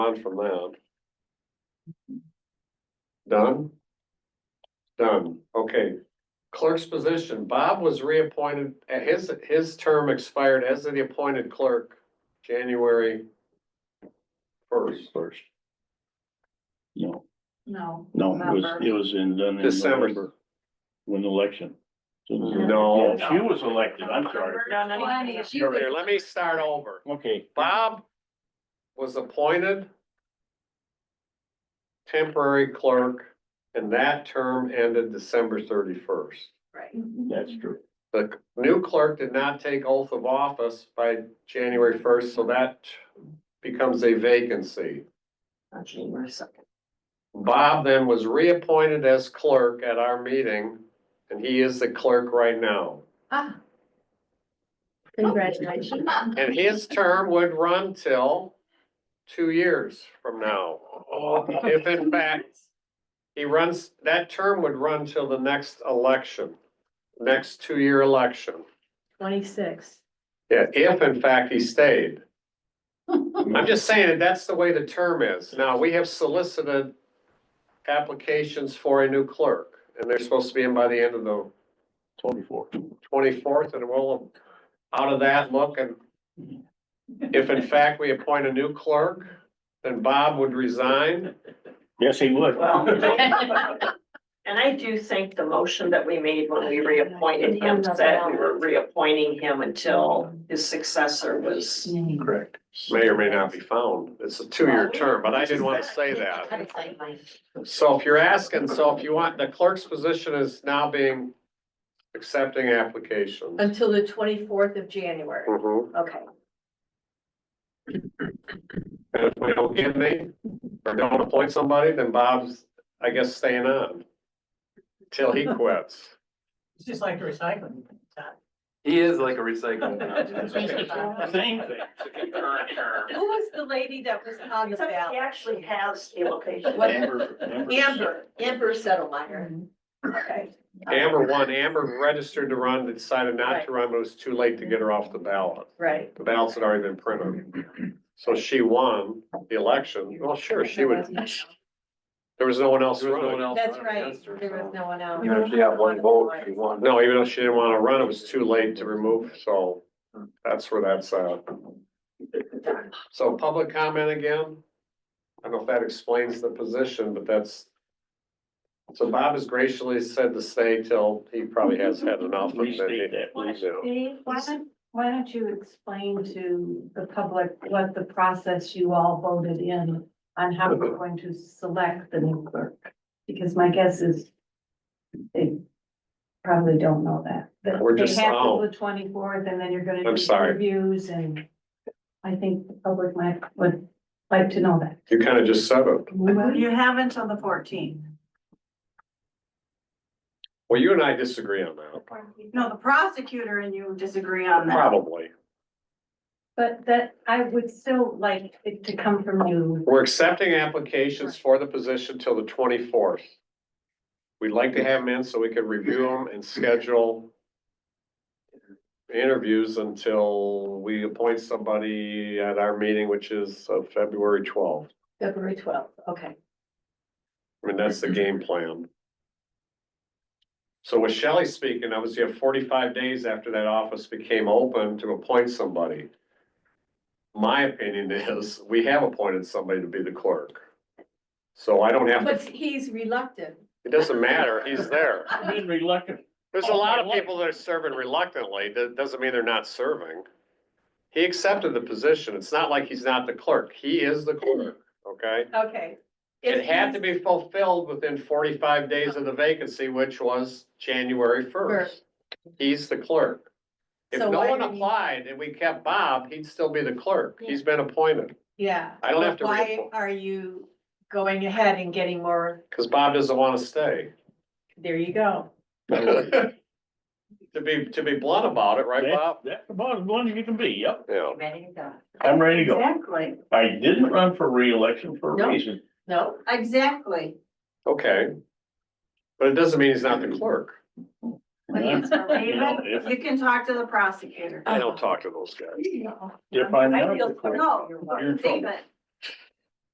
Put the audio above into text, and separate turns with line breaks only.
on from that. Done? Done, okay. Clerk's position, Bob was reappointed, uh, his, his term expired as the appointed clerk, January first,
First. No,
No.
no, it was,
November.
it was in, done in
December.
November, when the election.
No.
Yeah, She was elected, I'm sorry.
No, no, no.
Twenty.
She
Here, let me start over.
Okay.
Bob was appointed temporary clerk, and that term ended December thirty-first.
Right.
That's true.
The new clerk did not take oath of office by January first, so that becomes a vacancy.
On January second.
Bob then was reappointed as clerk at our meeting, and he is the clerk right now.
Ah,
Congratulations.
And his term would run till two years from now.
Oh.
If in fact, he runs, that term would run till the next election, next two-year election.
Twenty-six.
Yeah, if in fact he stayed. I'm just saying that that's the way the term is. Now, we have solicited applications for a new clerk, and they're supposed to be in by the end of the
Twenty-four.
twenty-fourth, and we'll, out of that, look, and if in fact we appoint a new clerk, then Bob would resign.
Yes, he would.
Well, And I do think the motion that we made when we reappointed him said we were reappointing him until his successor was.
Correct.
May or may not be found. It's a two-year term, but I didn't want to say that. So if you're asking, so if you want, the clerk's position is now being accepting applications.
Until the twenty-fourth of January.
Mhm.
Okay.
And if we don't get any, or don't appoint somebody, then Bob's, I guess, staying on. Till he quits.
It's just like recycling.
He is like a recycling.
Same
Who was the lady that was on the
Somebody
ballot? actually has a location.
thing.
Amber, Amber Settlemyer. Okay.
Amber won, Amber registered to run, decided not to run, but it was too late to get her off the ballot.
Right.
The ballots had already been printed. So she won the election. Well, sure, she would, there was no one else running.
That's right. There was no one else.
Even if she had one vote, she won.
No, even though she didn't want to run, it was too late to remove, so that's where that's at. So public comment again? I don't know if that explains the position, but that's. So Bob has graciously said to stay till he probably has had enough. and then he-
Restate that, please.
Yeah.
Dave, why don't, why don't you explain to the public what the process you all voted in on how we're going to select the new clerk? Because my guess is they probably don't know that. That
We're just-
They have
oh.
to the twenty-fourth and then you're gonna
I'm
do
sorry.
interviews and I think the public might, would like to know that.
You kind of just said it.
Well,
You have until the fourteenth.
Well, you and I disagree on that,
No, the prosecutor and you disagree
Um,
on that.
probably.
But that, I would still like it to come from you.
We're accepting applications for the position till the twenty-fourth. We'd like to have them in so we can review them and schedule interviews until we appoint somebody at our meeting, which is uh, February twelfth.
February twelfth, okay.
I mean, that's the game plan. So with Shelley speaking, obviously you have forty-five days after that office became open to appoint somebody. My opinion is, we have appointed somebody to be the clerk. So I don't have,
But
to.
he's reluctant.
it doesn't matter, he's there.
I've been reluctant.
There's a lot of people that are serving reluctantly, that doesn't mean they're not serving. He accepted the position, it's not like he's not the clerk, he is the clerk, okay?
Okay.
It had to be fulfilled within forty-five days of the vacancy, which was January first. He's the clerk. If
So
no
why
one
didn't you-
applied and we kept Bob, he'd still be the clerk. He's been appointed.
Yeah.
I don't have to
Why
reappoint.
are you going ahead and getting more?
Cause Bob doesn't wanna stay.
There you go.
To be, to be blunt about it, right, Bob?
That- That's about as blunt as you can be, yep.
Yeah.
Ready to go.
I'm ready to go.
Exactly,
I didn't run for reelection for
No.
a reason.
No,
exactly.
Okay. But it doesn't mean he's not the clerk.
You know, If
You can talk to the prosecutor.
I don't talk to those guys.
if I'm not,
No,
you're in trouble.
David,